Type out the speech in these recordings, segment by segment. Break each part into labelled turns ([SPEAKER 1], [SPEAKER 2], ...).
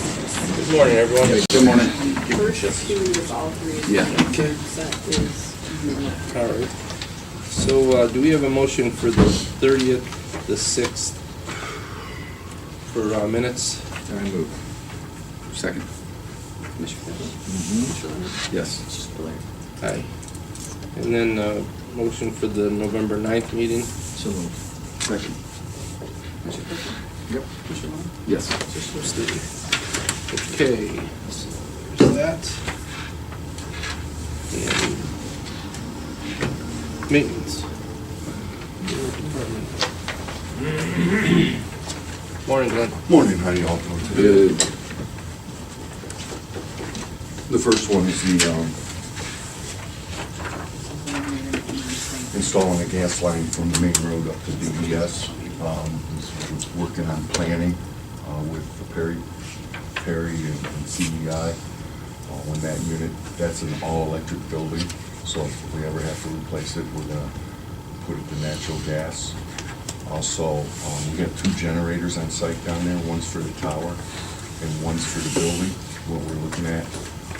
[SPEAKER 1] Good morning, everyone.
[SPEAKER 2] Good morning.
[SPEAKER 3] First two is all three.
[SPEAKER 2] Yeah.
[SPEAKER 1] Okay.
[SPEAKER 3] That is unique.
[SPEAKER 1] All right. So, uh, do we have a motion for the thirtieth, the sixth, for, uh, minutes?
[SPEAKER 2] I move. Second. Yes.
[SPEAKER 1] Aye. And then, uh, motion for the November ninth meeting?
[SPEAKER 2] So move. Second. Yep. Yes.
[SPEAKER 1] Okay, so there's that. And Maintenance. Morning, Glenn.
[SPEAKER 4] Morning, how you all doing today?
[SPEAKER 2] Good.
[SPEAKER 4] The first one is the um, installing a gas line from the main road up to DES. Um, we're Working on planning uh, with Perry, Perry and and CDI uh, on that unit. That's an all-electric building, so if we ever have to replace it, we're gonna put it to natural gas. Also, um, we got two generators on site down there, one's for the tower and one's for the building. What we're looking at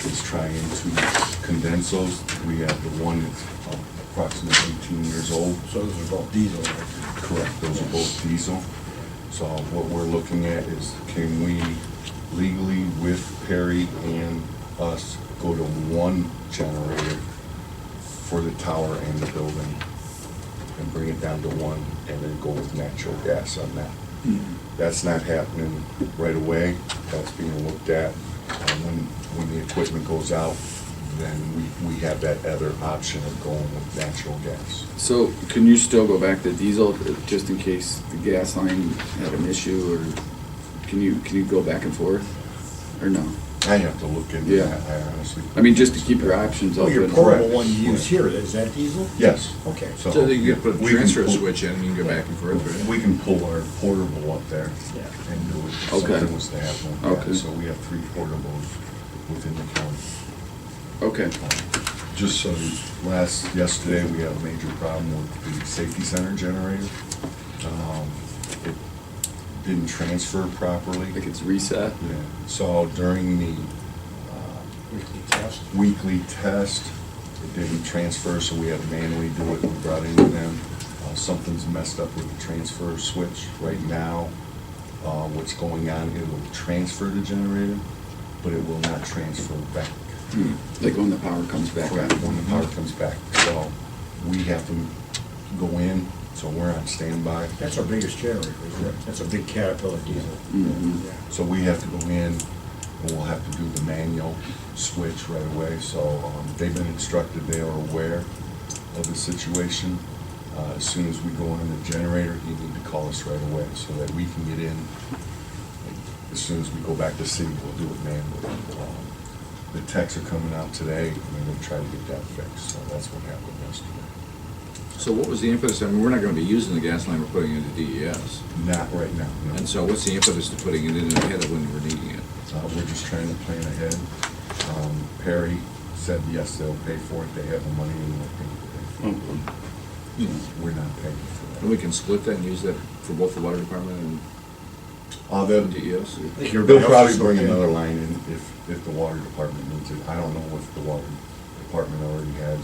[SPEAKER 4] is trying to condense those. We have the one that's approximately 18 years old.
[SPEAKER 5] So those are both diesel. right?
[SPEAKER 4] Correct, those are both diesel. So what we're looking at is can we legally with Perry and us go to one generator for the tower and the building and bring it down to one and then go with natural gas on that? That's not happening right away, that's being looked at. Uh, When, when the equipment goes out, then we, we have that other option of going with natural gas.
[SPEAKER 2] So can you still go back to diesel uh, just in case the gas line had an issue or can you, can you go back and forth? Or no?
[SPEAKER 4] I have to look into
[SPEAKER 2] Yeah.
[SPEAKER 4] that, I honestly.
[SPEAKER 2] I mean, just to keep your options
[SPEAKER 5] Well,
[SPEAKER 2] open.
[SPEAKER 5] your
[SPEAKER 4] Correct.
[SPEAKER 5] portable one you use here, is that diesel?
[SPEAKER 4] Yes.
[SPEAKER 5] Okay.
[SPEAKER 6] So you could put
[SPEAKER 4] we
[SPEAKER 6] a
[SPEAKER 4] can
[SPEAKER 6] transfer
[SPEAKER 4] pull-
[SPEAKER 6] switch in and you can go back and forth, right?
[SPEAKER 4] We can pull our portable up there
[SPEAKER 5] Yeah.
[SPEAKER 4] and do it. if
[SPEAKER 2] Okay.
[SPEAKER 4] Something was to happen. with that.
[SPEAKER 2] Okay.
[SPEAKER 4] So we have three portables within the county.
[SPEAKER 2] Okay,
[SPEAKER 4] Just so, last, yesterday, we had a major problem with the safety center generator. Um, It didn't transfer properly.
[SPEAKER 2] like it's reset?
[SPEAKER 4] Yeah, so during the uh,
[SPEAKER 5] Weekly test.
[SPEAKER 4] weekly test. It didn't transfer, so we had to manually do it. We brought in them. Uh, Something's messed up with the transfer switch right now. Uh, What's going on, it will transfer the generator, but it will not transfer back.
[SPEAKER 2] Hmm, Like when the power comes back
[SPEAKER 4] Correct,
[SPEAKER 2] on?
[SPEAKER 4] When the power comes back. So we have to go in, so we're on standby.
[SPEAKER 5] That's our biggest generator, isn't it? That's a big Caterpillar diesel.
[SPEAKER 2] Mhm.
[SPEAKER 5] Yeah.
[SPEAKER 4] So we have to go in, and we'll have to do the manual switch right away. So um, they've been instructed, they are aware of the situation. Uh, As soon as we go on the generator, you need to call us right away so that we can get in. As soon as we go back to city, we'll do it manually. Um, The techs are coming out today, and they're gonna try to get that fixed, so that's what happened yesterday.
[SPEAKER 6] So what was the impetus, I mean, we're not gonna be using the gas line we're putting into DES.
[SPEAKER 4] Not right now, no.
[SPEAKER 6] And so what's the impetus to putting it in ahead of when we're needing it?
[SPEAKER 4] Uh, We're just trying to plan ahead. Um, Perry said, yes, they'll pay for it, they have the money and they'll pay
[SPEAKER 2] Oh,
[SPEAKER 4] for it. We're not paying
[SPEAKER 6] Hmm. And
[SPEAKER 4] for
[SPEAKER 6] we
[SPEAKER 4] that.
[SPEAKER 6] can split that and use that for both the water department
[SPEAKER 4] Uh,
[SPEAKER 6] and
[SPEAKER 4] they'll,
[SPEAKER 6] DES?
[SPEAKER 5] I think
[SPEAKER 4] they'll
[SPEAKER 5] everybody else
[SPEAKER 4] probably
[SPEAKER 5] is
[SPEAKER 4] bring
[SPEAKER 5] okay.
[SPEAKER 4] another line in if, if the water department needs it. I don't know if the water department already has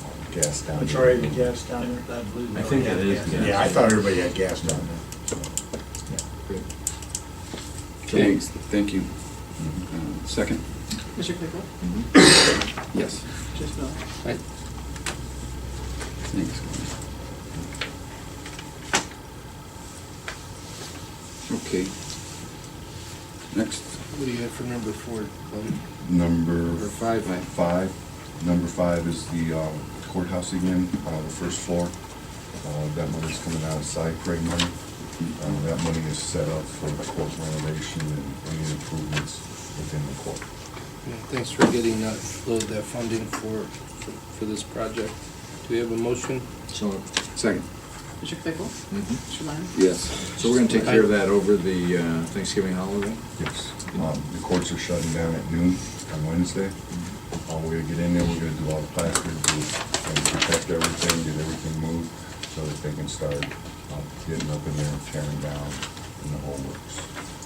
[SPEAKER 4] um, gas down there.
[SPEAKER 5] It's already the gas down there?
[SPEAKER 7] I think it is, yeah.
[SPEAKER 5] Yeah, I thought everybody had gas down there.
[SPEAKER 2] Thanks, thank you. Uh, Second?
[SPEAKER 3] Mr. Pickle?
[SPEAKER 2] Yes.
[SPEAKER 3] Just Bill?
[SPEAKER 1] Aye.
[SPEAKER 2] Thanks. Okay. Next,
[SPEAKER 1] What do you have for number four, Glenn?
[SPEAKER 4] Number
[SPEAKER 1] Number five.
[SPEAKER 4] Five. Number five is the uh, courthouse again, uh, the first floor. Uh, That money's coming out of side grade money. Uh, That money is set up for the court renovation and any improvements within the court.
[SPEAKER 1] Yeah, Thanks for getting that, uh, that funding for, for- for this project. Do we have a motion?
[SPEAKER 6] So,
[SPEAKER 2] second,
[SPEAKER 3] Mr. Pickle?
[SPEAKER 6] mhm.
[SPEAKER 3] Mr. Lyon?
[SPEAKER 2] yes.
[SPEAKER 6] so we're gonna take care of that over the uh, Thanksgiving holiday?
[SPEAKER 4] Yes. Um, The courts are shutting down at noon on Wednesday.
[SPEAKER 1] Mm-hmm.
[SPEAKER 4] Uh, We're gonna get in there, we're gonna do all the plaster, do, and protect everything, get everything moved so that they can start uh, getting up in there, tearing down, and the whole works.